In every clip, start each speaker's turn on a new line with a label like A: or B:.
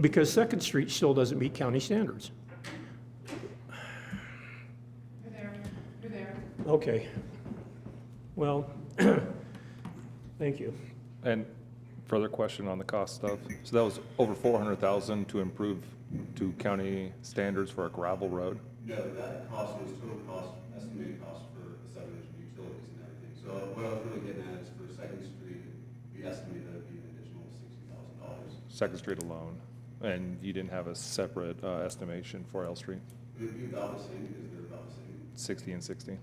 A: because Second Street still doesn't meet county standards.
B: You're there, you're there.
A: Okay. Well, thank you.
C: And further question on the cost stuff. So that was over four hundred thousand to improve to county standards for a gravel road.
D: No, that cost was total cost, estimated cost for the subdivision utilities and everything. So what I was really getting at is for Second Street, we estimated that would be an additional sixty thousand dollars.
C: Second Street alone, and you didn't have a separate uh, estimation for L Street,
D: It would be about the same because they're about the same.
C: sixty and sixty,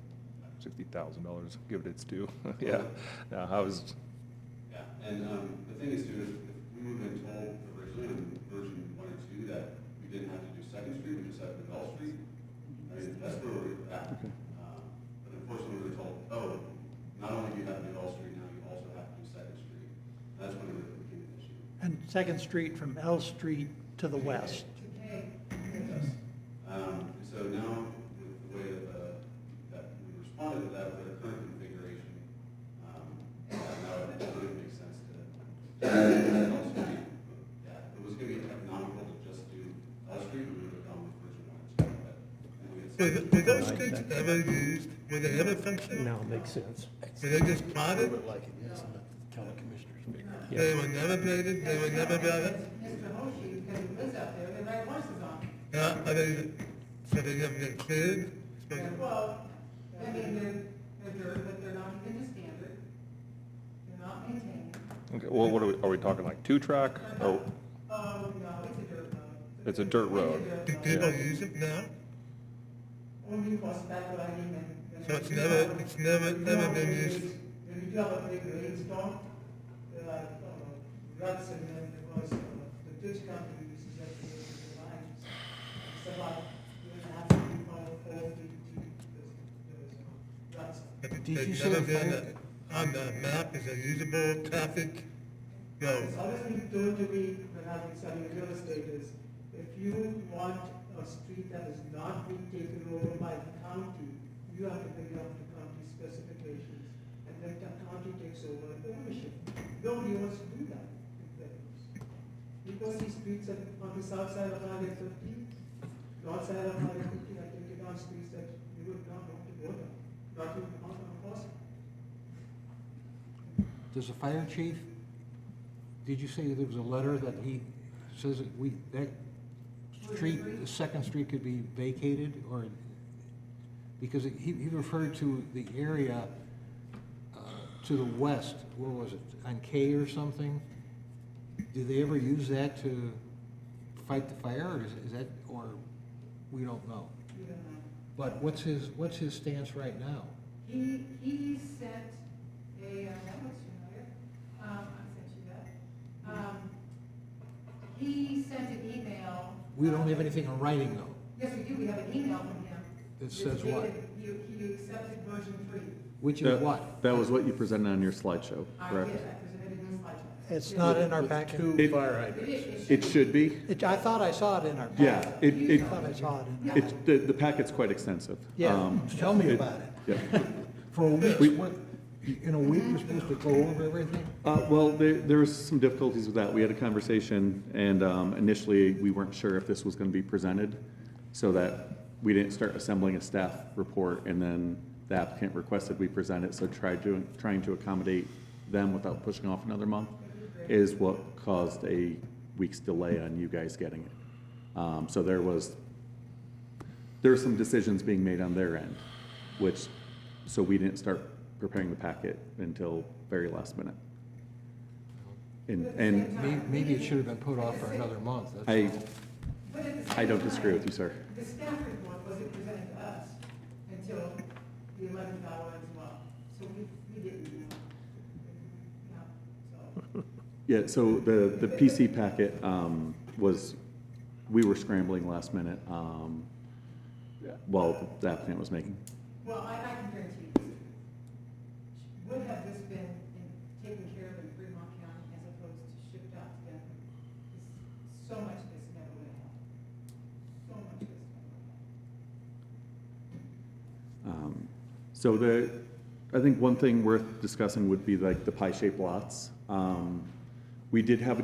C: sixty thousand dollars, give it its due. Yeah, no, I was,
D: Yeah, and, um, the thing is too, is if we would've been told originally in version one or two that we didn't have to do Second Street, we just had to do Bell Street, I mean, that's where we're at. Um, But unfortunately, we were told, oh, not only do you have to do Bell Street, now you also have to do Second Street. That's when it really became an issue.
E: And Second Street from L Street to the west.
D: Yes. Um, so now, with the way that, uh, that we responded to that with our current configuration, um, yeah, now it really makes sense to, to L Street. Yeah, if it was gonna be economical to just do L Street, we would have gone with version one or two, but, and we had.
F: Were, th- were those streets ever used? Were they ever functional?
A: Now it makes sense.
F: Were they just plotted?
G: like it is, and let the county commissioners figure it out.
A: Yeah.
F: They were never graded, they were never built?
B: Mr. Hoshi, because he lives out there, they ride horses on.
F: Now, are they, so they never get cleared? So-
B: it. Well, I mean, they're, they're dirt, but they're not even to standard. They're not maintained.
C: okay, well, what are we, are we talking like two track? Oh,
B: Oh, no, it's a dirt road.
C: it's a dirt road.
B: It's
F: Do
B: a dirt road.
F: people use it now?
B: When we cross back, what I mean, and.
F: So it's never, it's never, never been used?
B: When you do have a big rainstorm, there are uh, ruts and then because uh, the ditch company uses that to make the lines. It's about, you know, half feet by four feet deep, there's, there's ruts.
F: But
E: Did
F: they
E: you
F: never
E: say
F: been
E: fire-
F: On the map, is a usable traffic road?
B: It's always been told to me when I've been selling real estate is, if you want a street that is not being taken over by the county, you have to bring up the county specifications, and then the county takes over the ownership. Nobody wants to do that. with theirs. Because these streets are on the south side of Highway fifty, north side of Highway fifty, I think it are streets that you would not want to go down, not even on, on course.
G: Does the fire chief, did you say there was a letter that he says that we, that street, the second street could be vacated, or, because he, he referred to the area uh, to the west, where was it, on K or something? Do they ever use that to fight the fire, or is is that, or, we don't know?
B: You don't have
G: But what's his, what's his stance right now?
B: He, he sent a, uh, that looks familiar, um, I sent you that. Um, he sent an email.
G: We don't have anything in writing, though.
B: Yes, we do, we have an email from him.
G: That says what?
B: It's dated, You, you accepted version three.
G: Which is what?
H: That was what you presented on your slideshow,
B: I did, I
H: correct?
B: presented in slideshow.
E: It's not in our packet.
H: It-
B: It is-
H: It should be.
E: It- I thought I saw it in our
H: Yeah,
E: packet.
H: it,
E: I
H: it,
E: thought I saw it in.
H: it's, the, the packet's quite extensive.
E: Yeah,
H: Um,
E: tell me about it.
H: Yeah.
G: For a week's
H: We-
G: worth, in a week, we're supposed to go over everything?
H: Uh, well, there, there was some difficulties with that. We had a conversation and, um, initially, we weren't sure if this was gonna be presented. So that we didn't start assembling a staff report and then the applicant requested we present it. So tried to, trying to accommodate them without pushing off another month is what caused a week's delay on you guys getting it. Um, so there was there are some decisions being made on their end, which, so we didn't start preparing the packet until very last minute. And, and
G: May- Maybe it should have been put off for another month,
H: I,
G: that's all.
B: But at the
H: I don't
B: same
H: disagree with
B: time,
H: you, sir.
B: The staff report wasn't presented to us until the eleventh hour as well, so we, we didn't know. No, so.
H: Yeah, so the, the PC packet, um, was, we were scrambling last minute, um, while the applicant was making.
B: Well, I, I can guarantee you this. Would have this been in- taken care of in Fremont County as opposed to shipped out to Denver? 'Cause So much of this never would have happened. So much of this never would have happened.
H: Um, So the, I think one thing worth discussing would be like the pie-shaped lots. Um, We did have a